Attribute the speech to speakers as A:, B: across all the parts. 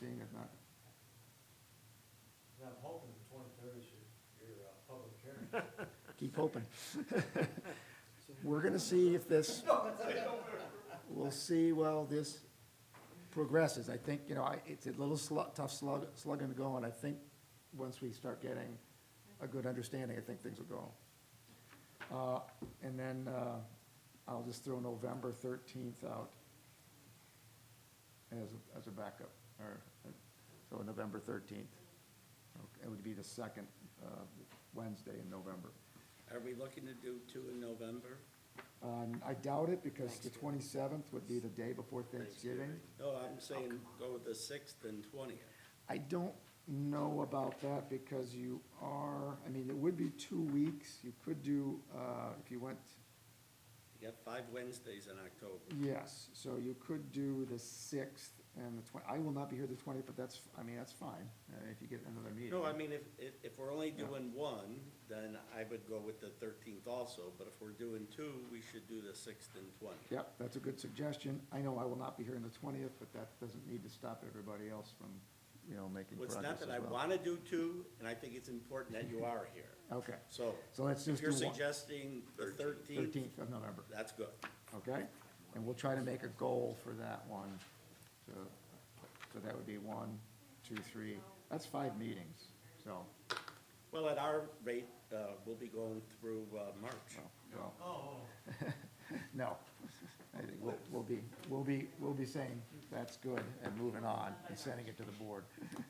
A: seeing as not.
B: And I'm hoping the twenty-third is your, your, uh, public hearing.
A: Keep hoping. We're gonna see if this, we'll see, well, this progresses. I think, you know, I, it's a little slug, tough slug, slugging to go, and I think once we start getting a good understanding, I think things will go. Uh, and then, uh, I'll just throw November thirteenth out as, a- as a backup, or, uh, so November thirteenth. It would be the second, uh, Wednesday in November.
C: Are we looking to do two in November?
A: Um, I doubt it, because the twenty-seventh would be the day before Thanksgiving.
C: No, I'm saying go with the sixth and twentieth.
A: I don't know about that, because you are, I mean, it would be two weeks, you could do, uh, if you went,
C: You got five Wednesdays in October.
A: yes, so you could do the sixth and the twen- I will not be here the twentieth, but that's, I mean, that's fine, uh, if you get another meeting.
C: No, I mean, if, if, if we're only doing one, then I would go with the thirteenth also, but if we're doing two, we should do the sixth and twentieth.
A: Yep, that's a good suggestion, I know I will not be here on the twentieth, but that doesn't need to stop everybody else from, you know, making
C: Well,
A: progress
C: it's
A: as
C: not that I
A: well.
C: wanna do two, and I think it's important that you are here.
A: Okay,
C: So,
A: so let's just
C: if
A: do
C: you're
A: one.
C: suggesting the thirteenth,
A: Thirteenth of November.
C: that's good.
A: okay? And we'll try to make a goal for that one, so, so that would be one, two, three, that's five meetings, so,
C: Well, at our rate, uh, we'll be going through, uh, March.
A: well, well,
B: Oh,
A: no. I think we'll, we'll be, we'll be, we'll be saying, that's good, and moving on, and sending it to the board.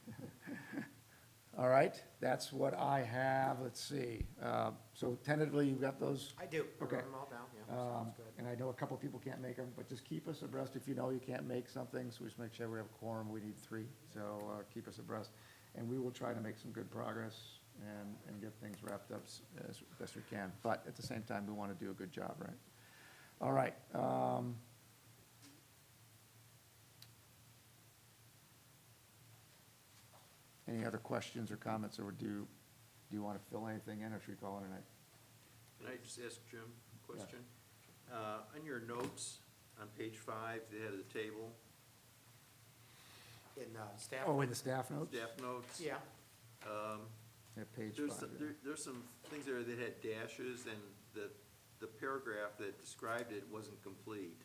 A: All right, that's what I have, let's see, uh, so tentatively, you've got those?
D: I do. I wrote
A: Okay.
D: them all down, yeah,
A: Um,
D: sounds good.
A: and I know a couple people can't make them, but just keep us abreast if you know you can't make something, so just make sure we have a quorum, we need three, so, uh, keep us abreast. And we will try to make some good progress and, and get things wrapped up s- as best we can, but at the same time, we wanna do a good job, right? All right, um. Any other questions or comments, or do, do you wanna fill anything in, or should we call it a night?
E: Can I just ask Jim a question? Uh, On your notes, on page five, the head of the table,
D: In, uh, staff,
A: Oh, in the staff notes?
E: staff notes.
D: yeah,
E: um,
A: Yeah, page
E: There's,
A: five.
E: some-
A: yeah.
E: there- there's some things there that had dashes, and the, the paragraph that described it wasn't complete,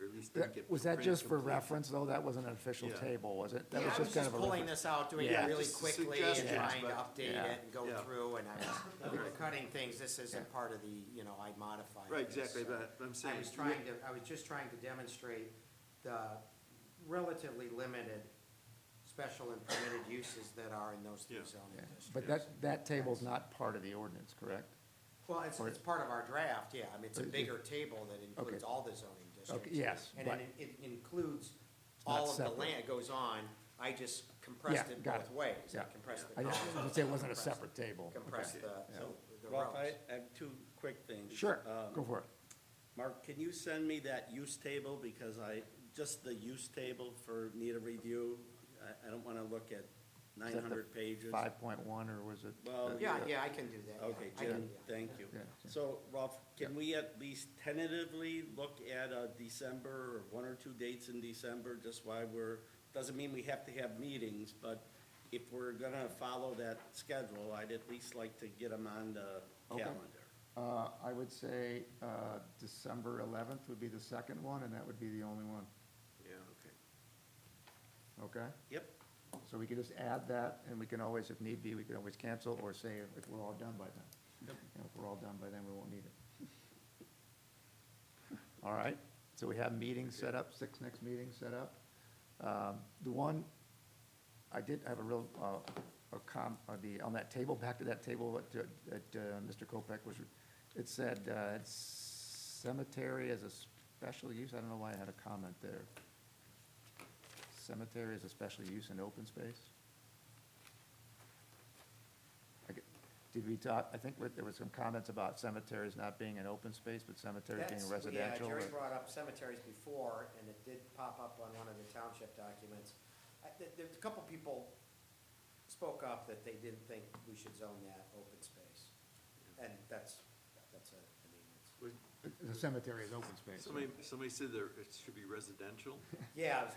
E: or at least didn't
A: That-
E: get.
A: Was that
E: print
A: just for
E: complete.
A: reference, though? That wasn't an official
E: Yeah.
A: table, was it? That
D: yeah, I was
A: kind
D: just
A: of a
D: pulling
A: reference.
D: this out, doing
A: Yeah.
D: it really
E: Just
D: quickly and
E: suggestions,
D: trying to
E: but-
D: update
A: Yeah.
D: it and go
E: Yeah.
D: through, and I was
E: Right.
D: cutting things, this
A: Yeah.
D: isn't part of the, you know, I modified
E: Right,
D: this,
E: exactly,
D: so.
E: but I'm saying.
D: I was trying to, I was just trying to demonstrate the relatively limited special and permitted uses that are in those three
E: Yeah.
A: Yeah.
D: zoning districts.
A: But that, that table's not part of the ordinance, correct?
D: Well, it's,
A: Or-
D: it's part of our draft, yeah, I mean, it's a
A: Or-
D: bigger table that includes
A: Okay.
D: all the zoning districts.
A: yes,
D: And
A: but-
D: it, it includes
A: not
D: all of the
A: separate.
D: land, it goes on, I just compressed
A: Yeah,
D: it
A: got
D: both
A: it.
D: ways, I
A: Yeah.
D: compressed the
A: I
D: columns.
A: just, I would say it wasn't a
D: compressed-
A: separate table.
D: Compressed uh,
A: Okay.
D: the,
A: Yeah.
D: the
C: Ralph, I
D: rows.
C: I have two quick things.
A: Sure,
C: Um,
A: go for it.
C: Mark, can you send me that use table, because I, just the use table for need a review? I, I don't wanna look at
A: Is
C: nine
A: that the
C: hundred pages.
A: Five point one, or was it? Uh,
C: Well,
D: Yeah, yeah, I can do that, yeah,
C: oh, Okay,
D: I can,
C: Jim,
D: do that.
C: thank you.
A: Yeah, Jim.
C: So, Ralph, can we at least tentatively look at a December, or one or two dates in December, just why we're, doesn't mean we have to have meetings, but if we're gonna follow that schedule, I'd at least like to get them on the
A: Okay.
C: calendar.
A: Uh, I would say, uh, December eleventh would be the second one, and that would be the only one,
E: Yeah, okay.
A: okay?
C: Yep,
A: So we can just add that, and we can always, if need be, we can always cancel or say if we're all done by then. You know, If we're all done by then, we won't need it. All right, so we have meetings set up, six next meetings set up. Um, The one, I did have a real, uh, a com, uh, the, on that table, back to that table that, that uh, Mr. Kopeck was, it said uh, it's cemetery as a special use, I don't know why I had a comment there. Cemetery is a special use in open space? I get- Did we talk, I think there was some comments about cemeteries not being an open space, but cemeteries
D: That's-
A: being residential.
D: Yeah, Jerry
A: or-
D: brought up cemeteries before, and it did pop up on one of the township documents. I- there- There's a couple people spoke up that they didn't think we should zone that open space, and that's, that's a, I mean,
E: Was-
A: The cemetery is open space.
E: Somebody, somebody said there, it should be residential?
D: it's, yeah,